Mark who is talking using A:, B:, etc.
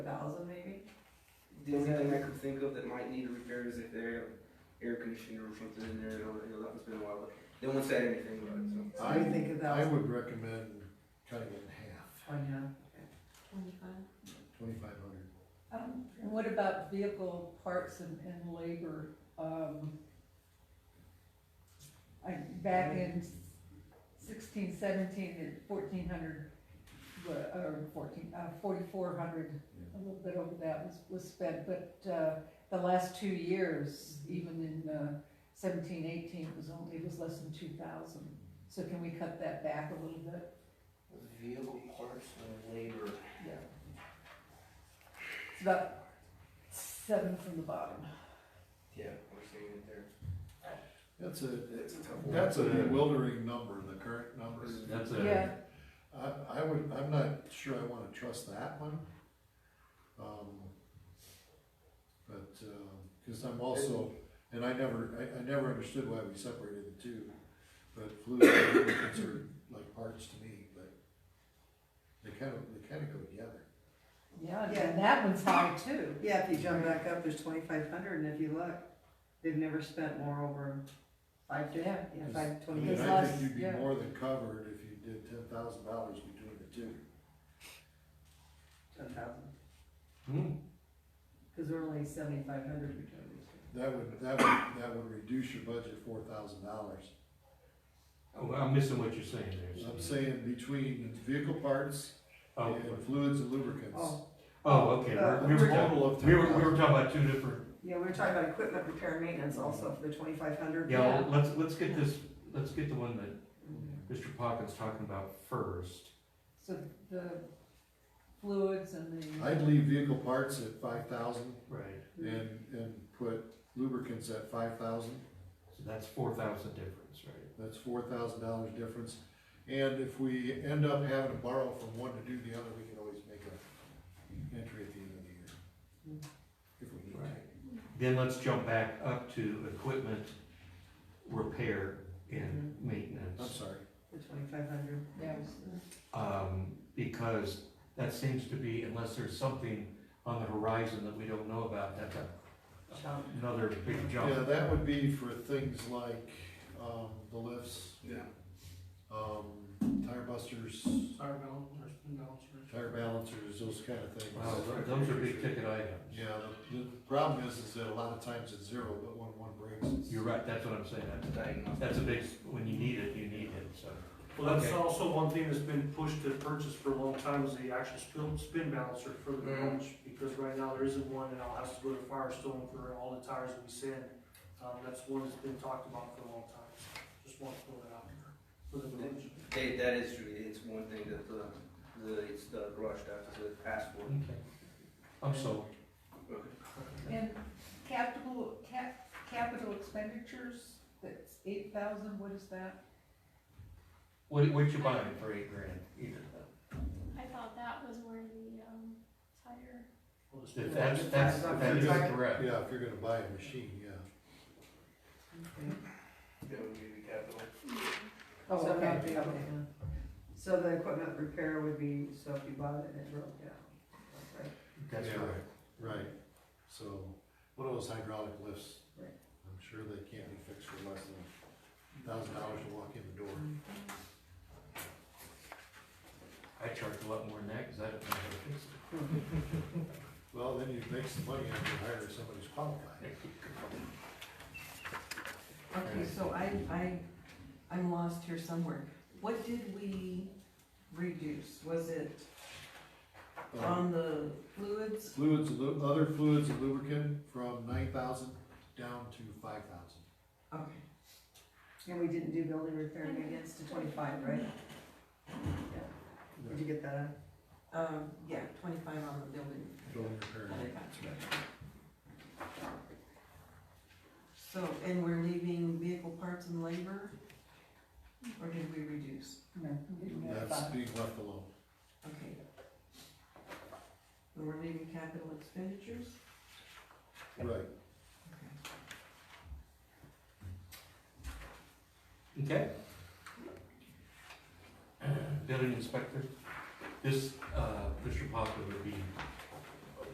A: The only thing I could think of that might need repair is if their air conditioner or something in there, you know, you know, that one's been a while, but they won't say anything about it, so.
B: So you think a
C: I
B: thousand,
C: would recommend cutting it in half,
B: Tanya?
D: Twenty-five.
C: twenty-five hundred.
E: Um, and what about vehicle parts and, and labor, um, I, back in sixteen, seventeen, at fourteen hundred, or fourteen, uh, forty-four hundred, a little bit over that was, was spent, but, uh, the last two years, even in, uh, seventeen, eighteen, it was only, it was less than two thousand, so can we cut that back a little bit?
F: Vehicle parts and labor.
E: Yeah. It's about seven from the bottom.
A: Yeah, we're seeing it there.
C: That's a,
A: It's a tough one.
C: that's a bewildering number, the current numbers.
G: That's
E: Yeah.
G: a,
C: I, I would, I'm not sure I wanna trust that one. Um, But, um, cause I'm also, and I never, I, I never understood why we separated the two, but fluid and lubricants are like parts to me, but they kind of, they kind of go together.
E: Yeah, and then that one's high too.
B: Yeah, if you jump back up, there's twenty-five hundred, and if you look, they've never spent more over five, yeah, yeah, five,
C: I
B: twenty.
C: mean,
E: Because
C: I
E: last-
C: think you'd
E: yeah.
C: be more than covered if you did ten thousand dollars between the two.
B: Ten thousand,
G: hmm,
B: because we're only seventy-five hundred between these two.
C: That would, that would, that would reduce your budget four thousand dollars.
G: oh, I'm missing what you're saying there.
C: I'm
G: Steve.
C: saying between vehicle parts
G: Oh,
C: and fluids and lubricants.
B: Oh,
G: oh, okay,
B: Uh,
G: we're- we were, talking-
C: Total of
G: we were, we
C: 10,000.
G: were talking about two different,
B: yeah, we were talking about equipment repair and maintenance also for the twenty-five hundred.
G: yeah, well, let's, let's get this, let's get the one that Mr. Pocket's talking about first.
E: So the fluids and the,
C: I'd leave vehicle parts at five thousand
G: Right.
C: and, and put lubricants at five thousand,
G: So that's four thousand difference, right?
C: that's four thousand dollars difference. And if we end up having to borrow from one to do the other, we can always make a entry at the end of the year. If we need to.
G: Then let's jump back up to equipment repair and
B: Mm-hmm.
C: I'm
G: maintenance.
C: sorry,
B: The twenty-five hundred.
E: yeah, it was-
G: Um, because that seems to be, unless there's something on the horizon that we don't know about, that's a- another big jump.
C: yeah, that would be for things like, um, the lifts,
A: Yeah.
C: um, tire busters,
F: Tire balancers, balancers.
C: tire balancers, those kind of things.
G: Wow, th- those are big ticket items.
C: Yeah, the, the problem is, is that a lot of times it's zero, but when one breaks, it's.
G: You're right, that's what I'm saying, that's,
A: Diagnostic.
G: that's a big, when you need it, you need it, so.
F: Well, that's
G: Okay.
F: also one thing that's been pushed to purchase for a long time is the actual spin, spin balancer for the
G: Mm-hmm.
A: Mm.
F: launch, because right now there isn't one, and I'll have to go to Firestone for all the tires that we send. Um, that's one that's been talked about for a long time, just want to throw that out there for the launch.
A: They, that is true, it's one thing that the, the, it's the garage staff, is the passport.
G: Okay. I'm sold.
A: Okay.
E: and capital, cap, capital expenditures, that's eight thousand, what is that?
G: What, what you buying for eight grand? Either
H: I thought that was where the, um, tire,
F: Well, the
G: If
F: spin
G: that's,
F: balancer-
G: that's, that is correct.
C: Yeah, if you're gonna buy a machine, yeah.
A: That would be the capital.
E: Oh,
B: So
E: okay,
B: that'd be-
E: okay.
B: So the equipment repair would be, so if you bought it and it broke down, right?
G: That's
C: Yeah,
G: correct.
C: Right, so, one of those hydraulic lifts.
B: Right.
C: I'm sure they can't be fixed for less than a thousand dollars to walk in the door.
G: I charge a lot more than that, cause I don't know how to fix it.
C: Well, then you make some money after you hire somebody who's qualified.
D: Okay, so I, I, I'm lost here somewhere. What did we reduce? Was it
C: Um,
D: on the fluids?
C: Fluids, lu- other fluids and lubricant from nine thousand down to five thousand.
D: Okay,
B: And we didn't do building repair and maintenance to twenty-five, right? Did you get that?
D: um, yeah, twenty-five on the building.
C: Building repair.
D: I got you. So, and we're leaving vehicle parts and labor? Or did we reduce?
E: No, we didn't have
C: That's
E: five.
C: being left alone.
D: Okay. And we're leaving capital expenditures?
C: Right,
G: Okay. Building inspector, this, uh, Mr. Poplar would be